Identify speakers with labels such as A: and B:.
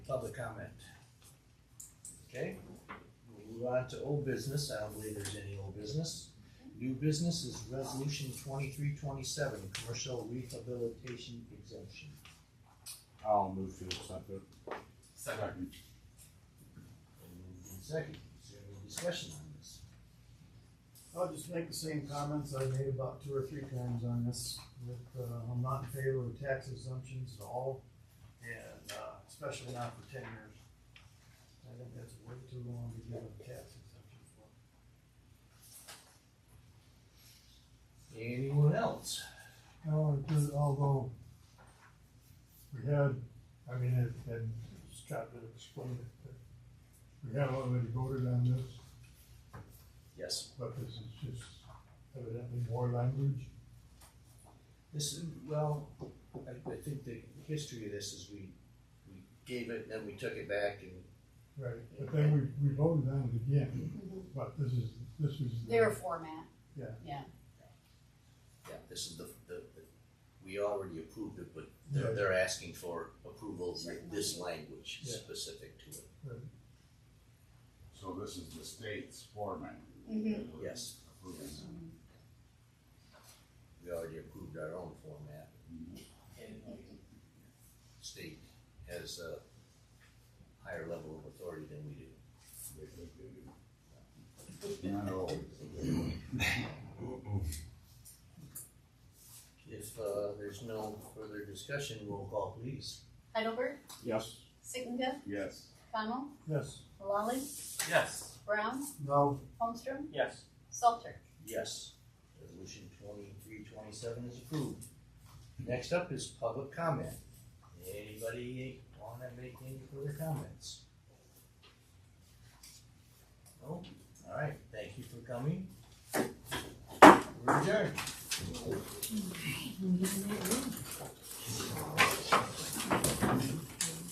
A: public comment? Okay, we'll move on to old business, I don't believe there's any old business. New business is resolution twenty-three twenty-seven, commercial rehabilitation exemption.
B: I'll move to accept it. Second.
A: Moved in Second, is there any discussion on this?
C: I'll just make the same comments I made about two or three times on this, that uh, I'm not in favor of tax exemptions at all, and uh, especially not for ten years. I think that's way too long to give a tax exemption for.
A: Anyone else?
D: No, Oh, it did, although we had, I mean, it, and Scott did explain it, but we had already voted on this,
A: Yes.
D: but this is just evidently more language.
A: This is, well, I, I think the history of this is we, we gave it, then we took it back and.
D: Right. But then we, we voted on it again, but this is, this is. the-
E: Their format.
D: Yeah.
E: Yeah,
F: Yeah, this is the, the, the- we already approved it, but they're,
D: Yeah.
F: they're asking for approval
E: Certain
F: with this language
D: Yeah.
F: specific to it.
B: So this is the state's format?
E: Mhm.
B: We're
F: Yes.
B: approving.
F: We already approved our own format. And State has a higher level of authority than we do.
B: They think they do. Not always.
F: If, uh, there's no further discussion, roll call please.
E: Heidelberg,
B: Yes.
E: Sittengeld,
B: Yes.
E: Connell,
D: Yes,
E: Lally,
G: Yes.
E: Brown,
C: No,
E: Holmstrom,
G: Yes.
E: Salter.
F: Yes. Resolution twenty-three twenty-seven is approved. Next up is public comment.
A: Anybody wanna make any further comments? No, alright, thank you for coming. We're adjourned.